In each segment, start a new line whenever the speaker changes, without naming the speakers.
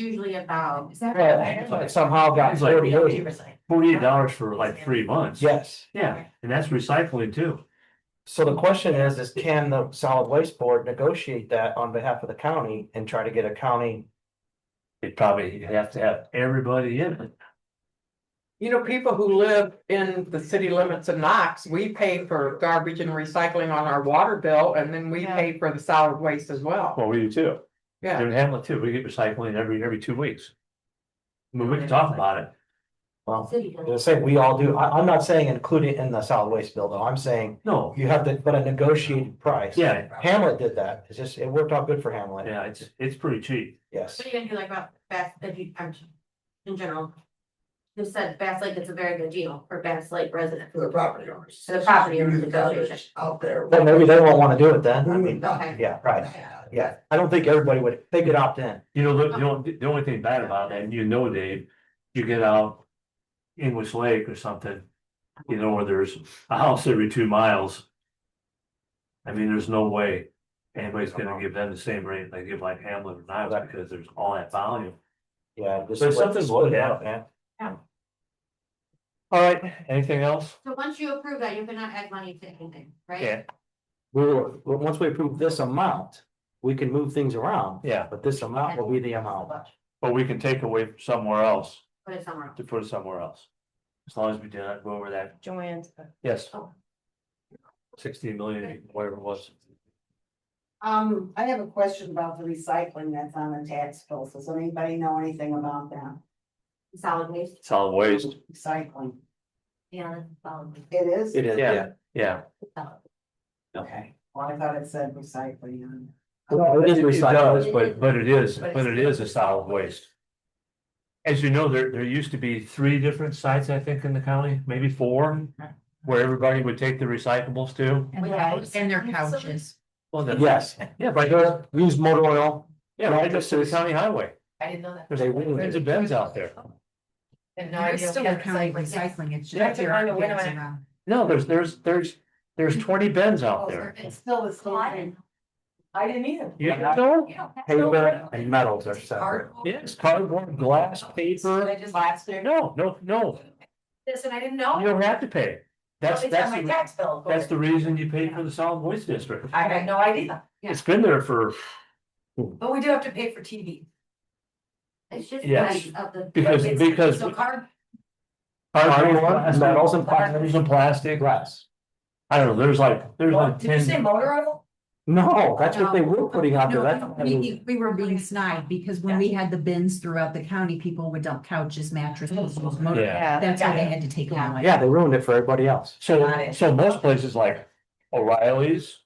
usually about.
Is that
Yeah,
right?
but Somehow got
It's like-
thirty eight,
Forty-eight dollars for like three months.
yes.
Yeah, and that's recycling too.
So the question is, is can the solid waste board negotiate that on behalf of the county and try to get a county?
It probably have to have everybody in it.
You know, people who live in the city limits of Knox, we pay for garbage and recycling on our water bill and then we
Yeah.
pay for the solid waste as well.
Well, we do too.
Yeah.
In Hamlet too, we get recycling every, every two weeks. I mean, we can talk about it.
Well,
City.
they say we all do. I, I'm not saying include it in the solid waste bill though. I'm saying
No,
you have to, but a negotiated price.
yeah,
Hamlet did that. It's just, it worked out good for Hamlet.
yeah, it's, it's pretty cheap.
Yes.
What do you think like about Bass, if you, I'm, in general? You said Bass Lake, it's a very good deal for Bass Lake residents.
to the property owners.
To the property owners
You, the village Out there.
Then maybe they won't want to do it then. I mean,
Okay.
yeah, right. Yeah, I don't think everybody would, they could opt in.
You know, the,
Uh-huh.
the only, the only thing bad about that, and you know, Dave, you get out English Lake or something, you know, where there's a house every two miles. I mean, there's no way anybody's gonna give them the same rate they give like Hamlet or Niles because there's all that volume.
Yeah. just
There's
split-
something
split it
loaded
out,
up.
man.
All right, anything else?
So once you approve that, you cannot add money to anything, right?
Yeah.
We will, well, once we approve this amount, we can move things around,
Yeah,
but this amount will be the amount.
but we can take away from somewhere else
Put it somewhere else.
to put it somewhere else. As long as we do not go over that,
Joanne's.
yes.
Oh.
Sixteen million, whatever it was.
Um, I have a question about the recycling that's on the tax bill. Does anybody know anything about that?
Solid waste,
Solid waste.
Recycling.
yeah, that's solid waste.
It is?
It is, yeah.
Yeah.
Okay. Well, I thought it said recycling on it.
Well, it is
It it
recycled.
does, but, but it is, but it is a solid waste. As you know, there, there used to be three different sites, I think, in the county, maybe four, where everybody would take the recyclables to.
And their-
And their couches.
Well, that's-
Yes,
Yeah, right there,
Just use motor oil.
yeah, right next to the county highway.
I didn't know that.
There's tons of bins out there.
And no, it's still county recycling. It's just. there aren't bins around.
No, there's, there's, there's, there's twenty bins out there.
Oh, It's still the same. I didn't either.
You know?
Paper and metals are separate.
Yes, cardboard, glass, paper.
Plastic.
No, no, no,
Listen, I didn't
you don't have to pay. That's, that's, the-
bill.
that's the reason you pay for the solid waste district.
I had no idea,
It's been there for,
but we do have to pay for TV.
It's just
Yes.
like of the.
because, because.
card.
Cardboard,
Cardboard,
plastic,
metals and
Metals
plastic.
and plastic.
Glass.
I don't know, there's like, there's like ten,
motor oil?
No, that's what they were putting out there.
No,
That's- I mean,
we, we were being snide because when we had the bins throughout the county, people would dump couches, mattresses, motor.
yeah.
That's why they had to take them away.
Yeah, they ruined it for everybody else.
Got
So,
it.
so most places like O'Reilly's,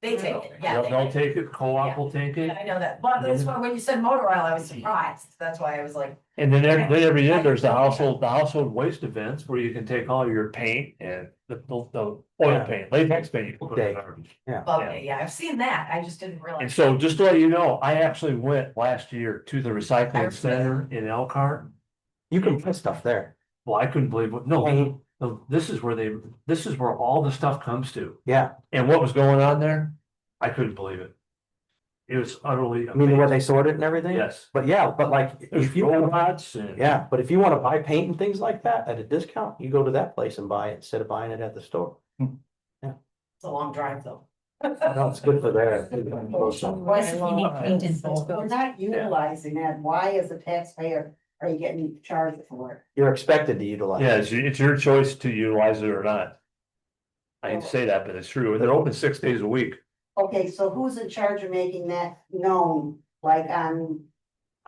They take it,
they'll, they'll take it, co-op will take it.
I know that, but
that's why
when you said motor oil, I was
Mm-hmm.
surprised, that's why I was like.
And then every, then every year, there's the household, the household waste events where you can take all your paint and the, the, the oil
Yeah.
paint, latex paint. you can put in
Okay.
the garbage.
Okay, yeah, I've seen that, I just didn't realize.
And so just to let you know, I actually went last year to the recycling center in Elkhart.
You can put stuff there.
Well, I couldn't believe what, no,
Paint,
no, this is where they, this is where all the stuff comes to.
Yeah,
And what was going on there? I couldn't believe it. It was utterly.
I mean, the way
amazing.
they sort it and everything.
Yes.
But yeah, but like,
There's
if you,
robots and.
yeah, but if you want to buy paint and things like that at a discount, you go to that place and buy it instead of buying it at the store.
It's a long drive though.
No, it's good for their.
Plus, you need paint in both.
We're not utilizing that, why as a taxpayer are you getting charged for it?
You're expected to utilize. it.
Yeah, it's, your- it's your choice to utilize it or not. I didn't say that, but it's true. And they're open six days a week.
Okay, so who's in charge of making that known, like um, on,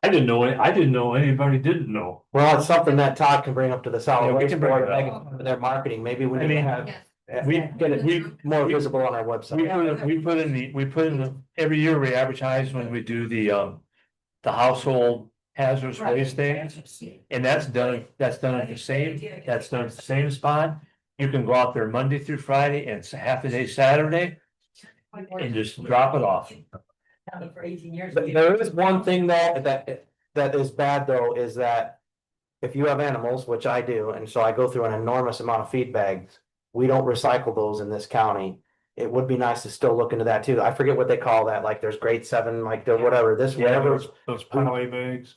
I didn't know, it- I didn't know anybody didn't know.
Well, it's something that Todd can bring up to the
Yeah,
solid
we
waste
can bring
board,
it
they
up.
can put their marketing, maybe we
I
can
mean,
have.
Yes.
We,
Get it
we,
more
we-
visible on our
we
website.
put, in- we put in the, we put in the, every year we advertise when we do the, um, the household hazardous waste things. And that's done, that's done at the same, that's done at the same spot. You can go out there Monday through Friday and it's a half a day Saturday and just drop it off.
for eighteen years?
But There is one thing though, that, that is bad though, is that if you have animals, which I do, and so I go through an enormous amount of feed bags, we don't recycle those in this county. It would be nice to still look into that too. I forget what they call that, like there's grade seven, like the whatever, this, whatever.
those
putaway
bags.